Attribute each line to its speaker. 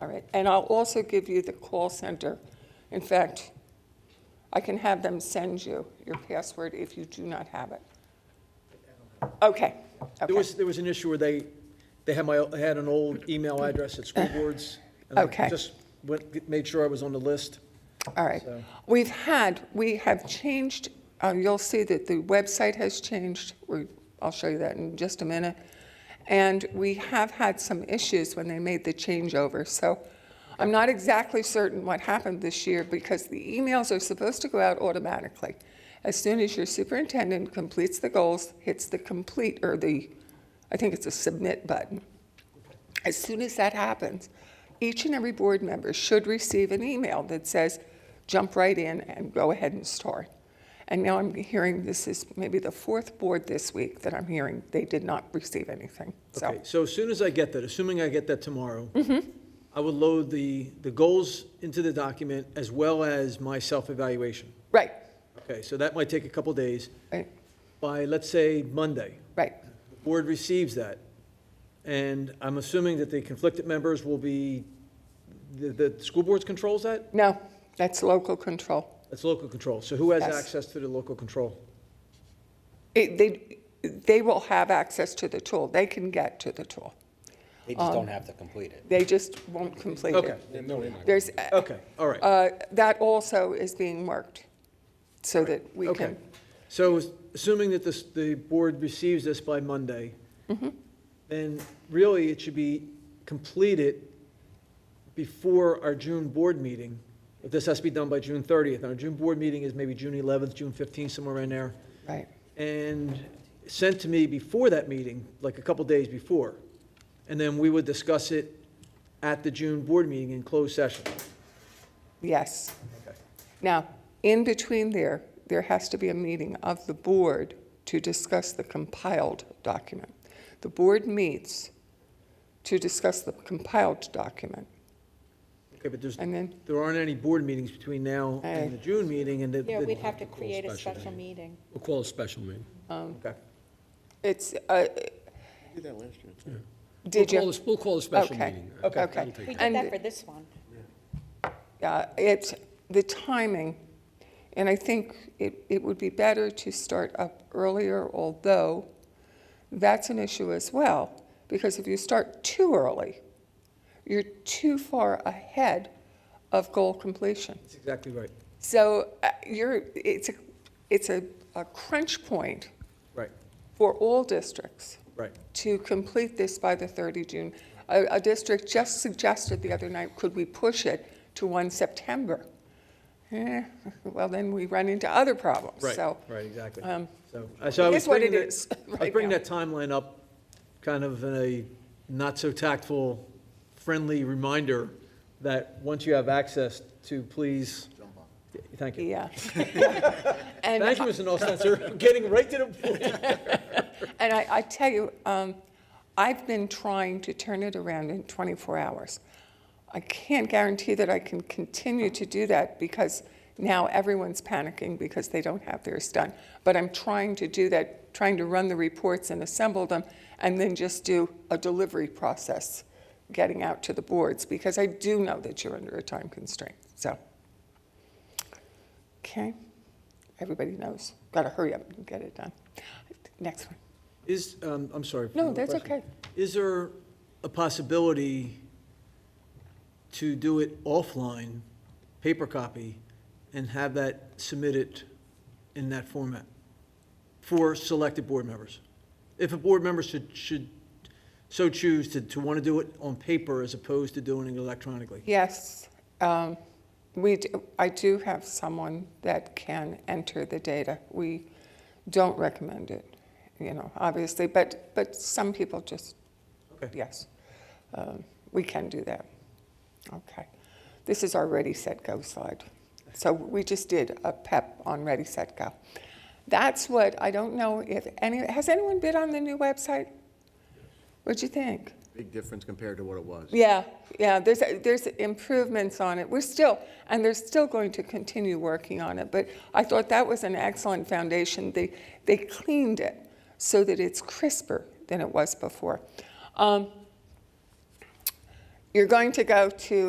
Speaker 1: All right, and I'll also give you the call center. In fact, I can have them send you your password if you do not have it. Okay,
Speaker 2: There
Speaker 1: okay,
Speaker 2: was, there was an issue where they, they had my, I had an old email address at school boards. and I
Speaker 1: Okay.
Speaker 2: Just went, made sure I was on the list.
Speaker 1: all right.
Speaker 2: So-
Speaker 1: We've had, we have changed, uh, you'll see that the website has changed. We- I'll show you that in just a minute. And we have had some issues when they made the changeover, so I'm not exactly certain what happened this year because the emails are supposed to go out automatically. As soon as your superintendent completes the goals, hits the complete, or the, I think it's a submit button. As soon as that happens, each and every board member should receive an email that says, jump right in and go ahead and start. And now I'm hearing this is maybe the fourth board this week that I'm hearing they did not receive anything.
Speaker 2: Okay,
Speaker 1: So, Mm-hmm.
Speaker 2: so as soon as I get that, assuming I get that tomorrow, I will load the, the goals into the document as well as my self-evaluation.
Speaker 1: right,
Speaker 2: Okay, so that might take a couple days.
Speaker 1: right,
Speaker 2: By, let's say, Monday,
Speaker 1: right.
Speaker 2: the board receives that, and I'm assuming that the conflicted members will be, the, the school boards controls that?
Speaker 1: No, that's local control.
Speaker 2: That's local control. So who has
Speaker 1: Yes.
Speaker 2: access to the local control?
Speaker 1: It, they, they will have access to the tool. They can get to the tool.
Speaker 3: They just don't have to complete it.
Speaker 1: They just won't complete it.
Speaker 2: Okay,
Speaker 1: There's,
Speaker 2: okay, all right.
Speaker 1: uh, that also is being worked so that we
Speaker 2: Okay.
Speaker 1: can,
Speaker 2: So assuming that this, the board receives this by Monday,
Speaker 1: Mm-hmm.
Speaker 2: then really it should be completed before our June board meeting. If this has to be done by June 30th, our June board meeting is maybe June 11th, June 15th, somewhere in there.
Speaker 1: right.
Speaker 2: and sent to me before that meeting, like a couple days before. And then we would discuss it at the June board meeting in closed session.
Speaker 1: Yes. Now, in between there, there has to be a meeting of the board to discuss the compiled document. The board meets to discuss the compiled document,
Speaker 2: Okay, but there's,
Speaker 1: and then,
Speaker 2: there aren't any board meetings between now and the June meeting and the.
Speaker 4: Yeah, we'd have to
Speaker 2: the-
Speaker 4: create a special meeting.
Speaker 5: We'll call a special meeting.
Speaker 2: Okay.
Speaker 1: it's, uh,
Speaker 6: Did that last year.
Speaker 1: did
Speaker 5: We'll call
Speaker 1: you?
Speaker 5: a- We'll call a special
Speaker 1: Okay.
Speaker 5: meeting.
Speaker 2: Okay.
Speaker 5: That'll
Speaker 1: Okay.
Speaker 5: take
Speaker 4: We
Speaker 5: care
Speaker 4: did
Speaker 1: And-
Speaker 4: that for this one.
Speaker 1: Yeah, uh, it's the timing, and I think it, it would be better to start up earlier, although that's an issue as well, because if you start too early, you're too far ahead of goal completion.
Speaker 2: That's exactly right,
Speaker 1: So uh, you're, it's a, it's a, a crunch point
Speaker 2: right,
Speaker 1: for all districts
Speaker 2: right.
Speaker 1: to complete this by the 30 June. A, a district just suggested the other night, could we push it to 1 September? Eh, well, then we run into other problems, so.
Speaker 2: Right, exactly.
Speaker 1: um,
Speaker 2: So, I- so I
Speaker 1: it
Speaker 2: was
Speaker 1: is what
Speaker 2: bringing
Speaker 1: it
Speaker 2: that-
Speaker 1: is
Speaker 2: I was
Speaker 1: right
Speaker 2: bringing
Speaker 1: now.
Speaker 2: that timeline up kind of in a not-so-tactful, friendly reminder that once you have access to, please, thank you.
Speaker 1: Yeah.
Speaker 2: Thank
Speaker 1: And,
Speaker 2: you, Mr. Nostetser, getting right to the point.
Speaker 1: and I, I tell you, um, I've been trying to turn it around in 24 hours. I can't guarantee that I can continue to do that because now everyone's panicking because they don't have theirs done. But I'm trying to do that, trying to run the reports and assemble them, and then just do a delivery process, getting out to the boards, because I do know that you're under a time constraint, so. Okay, everybody knows, gotta hurry up and get it done. Next one.
Speaker 2: Is, um, I'm sorry. for
Speaker 1: No,
Speaker 2: another
Speaker 1: that's
Speaker 2: question.
Speaker 1: okay.
Speaker 2: Is there a possibility to do it offline, paper copy, and have that submitted in that format for selected board members? If a board member should, should so choose to, to want to do it on paper as opposed to doing it electronically?
Speaker 1: Yes, um, we, d- I do have someone that can enter the data. We don't recommend it, you know, obviously, but, but some people just,
Speaker 2: Okay.
Speaker 1: yes, um, we can do that. Okay. This is our Ready, Set, Go slide. So we just did a PEP on Ready, Set, Go. That's what, I don't know if any, has anyone bid on the new website? What'd you think?
Speaker 6: Big difference compared to what it was.
Speaker 1: Yeah, yeah, there's, there's improvements on it. We're still, and they're still going to continue working on it, but I thought that was an excellent foundation. They, they cleaned it so that it's crisper than it was before. Um, You're going to go to